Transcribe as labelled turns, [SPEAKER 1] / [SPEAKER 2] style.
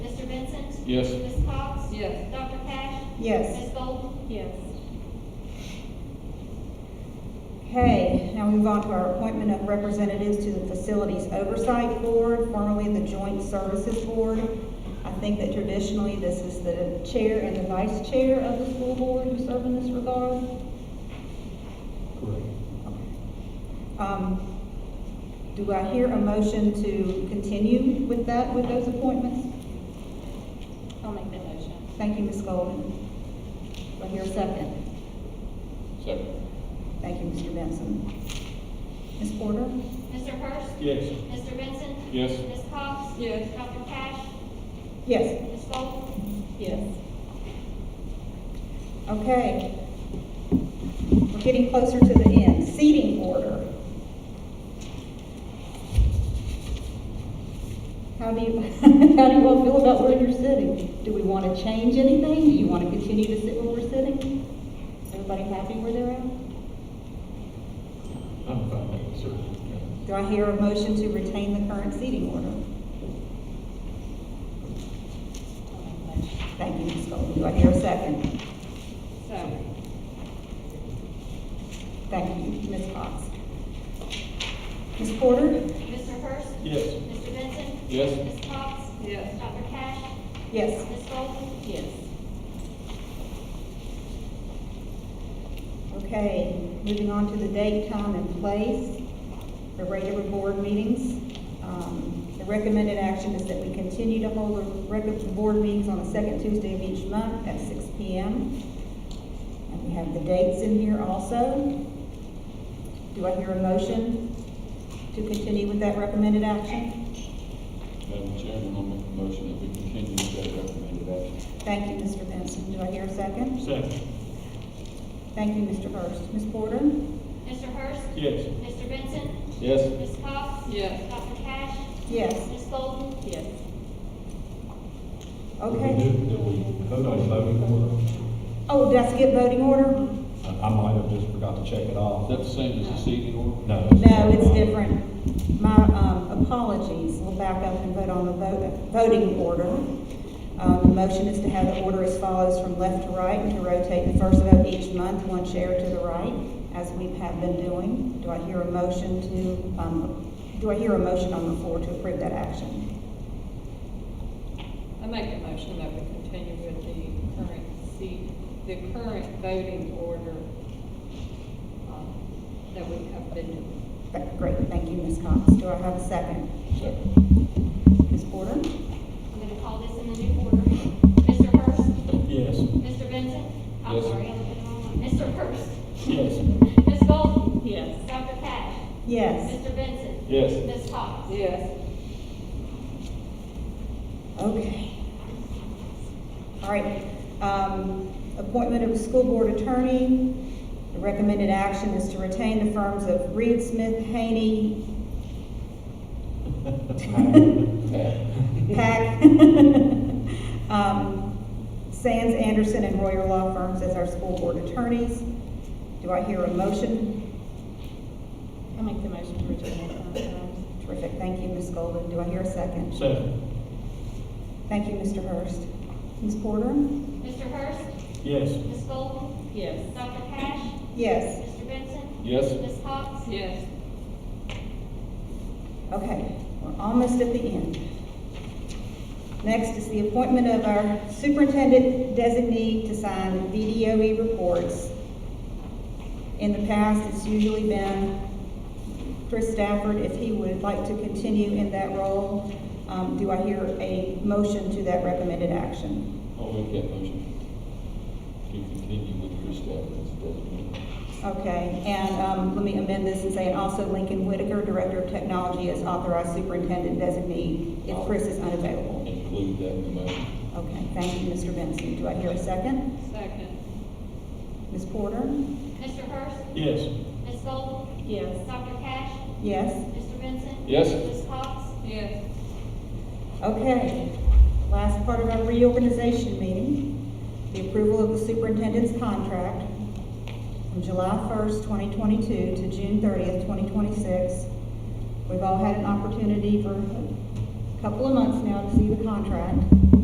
[SPEAKER 1] Yes.
[SPEAKER 2] Ms. Cox?
[SPEAKER 3] Yes.
[SPEAKER 2] Dr. Cash?
[SPEAKER 4] Yes.
[SPEAKER 2] Ms. Golden?
[SPEAKER 3] Yes.
[SPEAKER 4] Okay, now we move on to our appointment of representatives to the Facilities Oversight Board, formerly the Joint Services Board. I think that traditionally, this is the chair and the vice chair of the school board who serve in this regard.
[SPEAKER 1] Correct.
[SPEAKER 4] Um, Do I hear a motion to continue with that, with those appointments?
[SPEAKER 3] I'll make that motion.
[SPEAKER 4] Thank you, Ms. Golden. Do I hear a second?
[SPEAKER 1] Second.
[SPEAKER 4] Thank you, Mr. Benson. Ms. Porter?
[SPEAKER 2] Mr. Hurst?
[SPEAKER 1] Yes.
[SPEAKER 2] Mr. Benson?
[SPEAKER 1] Yes.
[SPEAKER 2] Ms. Cox?
[SPEAKER 3] Yes.
[SPEAKER 2] Dr. Cash?
[SPEAKER 4] Yes.
[SPEAKER 2] Ms. Golden?
[SPEAKER 3] Yes.
[SPEAKER 4] Okay. We're getting closer to the end. Seating order. How do you, how do you all feel about where you're sitting? Do we want to change anything? Do you want to continue to sit where we're sitting? Everybody happy where they're at?
[SPEAKER 1] I'm fine with it, sir.
[SPEAKER 4] Do I hear a motion to retain the current seating order?
[SPEAKER 3] I'll make the motion.
[SPEAKER 4] Thank you, Ms. Golden. Do I hear a second?
[SPEAKER 3] So,
[SPEAKER 4] Thank you, Ms. Cox. Ms. Porter?
[SPEAKER 2] Mr. Hurst?
[SPEAKER 1] Yes.
[SPEAKER 2] Mr. Benson?
[SPEAKER 1] Yes.
[SPEAKER 2] Ms. Cox?
[SPEAKER 3] Yes.
[SPEAKER 2] Dr. Cash?
[SPEAKER 4] Yes.
[SPEAKER 2] Ms. Golden?
[SPEAKER 3] yes.
[SPEAKER 4] Okay, moving on to the date, time, and place, the regular board meetings. Um, The recommended action is that we continue to hold the regular board meetings on the second Tuesday of each month at six P M. And we have the dates in here also. Do I hear a motion to continue with that recommended action?
[SPEAKER 1] Madam Chairman, I'll make a motion that we continue with that recommended action.
[SPEAKER 4] Thank you, Mr. Benson. Do I hear a second?
[SPEAKER 1] Second.
[SPEAKER 4] Thank you, Mr. Hurst. Ms. Porter?
[SPEAKER 2] Mr. Hurst?
[SPEAKER 1] Yes.
[SPEAKER 2] Mr. Benson?
[SPEAKER 1] Yes.
[SPEAKER 2] Ms. Cox?
[SPEAKER 3] Yes.
[SPEAKER 2] Dr. Cash?
[SPEAKER 4] Yes.
[SPEAKER 2] Ms. Golden?
[SPEAKER 3] Yes.
[SPEAKER 4] Okay.
[SPEAKER 5] Did did we vote on voting order?
[SPEAKER 4] Oh, did I skip voting order?
[SPEAKER 5] I I might have just forgot to check it
[SPEAKER 1] Is
[SPEAKER 5] off.
[SPEAKER 1] that the same as the seating order?
[SPEAKER 5] No.
[SPEAKER 4] No, it's different. My um, apologies, we'll back up and vote on the vo- voting order. Um, The motion is to have the order as follows from left to right, and to rotate the first vote each month, one chair to the right, as we have been doing. Do I hear a motion to, um, do I hear a motion on the floor to approve that action?
[SPEAKER 3] I make a motion that we continue with the current seat, the current voting order um, that we have been doing.
[SPEAKER 4] Th- Great, thank you, Ms. Cox. Do I have a second?
[SPEAKER 1] Second.
[SPEAKER 4] Ms. Porter?
[SPEAKER 2] I'm gonna call this in the new order. Mr. Hurst?
[SPEAKER 1] Yes.
[SPEAKER 2] Mr. Benson? I'm
[SPEAKER 1] Yes.
[SPEAKER 2] sorry, I'm looking wrong. Mr. Hurst?
[SPEAKER 1] Yes.
[SPEAKER 2] Ms. Golden?
[SPEAKER 3] Yes.
[SPEAKER 2] Dr. Cash?
[SPEAKER 4] Yes.
[SPEAKER 2] Mr. Benson?
[SPEAKER 1] Yes.
[SPEAKER 2] Ms. Cox?
[SPEAKER 3] Yes.
[SPEAKER 4] Okay. All right, um, appointment of school board attorney. The recommended action is to retain the firms of Reed Smith, Haney, Pack, um, Sands, Anderson, and Royer Law Firms as our school board attorneys. Do I hear a motion?
[SPEAKER 3] I'll make the motion to retain the current terms.
[SPEAKER 4] Terrific, thank you, Ms. Golden. Do I hear a second?
[SPEAKER 1] Second.
[SPEAKER 4] Thank you, Mr. Hurst. Ms. Porter?
[SPEAKER 2] Mr. Hurst?
[SPEAKER 1] Yes.
[SPEAKER 2] Ms. Golden?
[SPEAKER 3] Yes.
[SPEAKER 2] Dr. Cash?
[SPEAKER 4] Yes.
[SPEAKER 2] Mr. Benson?
[SPEAKER 1] Yes.
[SPEAKER 2] Ms. Cox?
[SPEAKER 3] Yes.
[SPEAKER 4] Okay, we're almost at the end. Next is the appointment of our superintendent designee to sign VDOE E reports. In the past, it's usually been Chris Stafford, if he would like to continue in that role. Um, do I hear a motion to that recommended action?
[SPEAKER 1] I'll make that motion. To continue with your staff as designated.
[SPEAKER 4] Okay, and, um, let me amend this and say, and also Lincoln Whitaker, Director of Technology, is authorized superintendent designee if Chris is unavailable.
[SPEAKER 1] Include that in the motion.
[SPEAKER 4] Okay, thank you, Mr. Benson. Do I hear a second?
[SPEAKER 3] Second.
[SPEAKER 4] Ms. Porter?
[SPEAKER 2] Mr. Hurst?
[SPEAKER 1] Yes.
[SPEAKER 2] Ms. Golden?
[SPEAKER 3] Yes.
[SPEAKER 2] Dr. Cash?
[SPEAKER 4] Yes?
[SPEAKER 2] Mr. Benson?
[SPEAKER 1] Yes.
[SPEAKER 2] Ms. Cox?
[SPEAKER 3] Yes.
[SPEAKER 4] Okay. Last part of our reorganization meeting, the approval of the superintendent's contract from July 1st, 2022 to June 30th, 2026. We've all had an opportunity for a couple of months now to see the contract.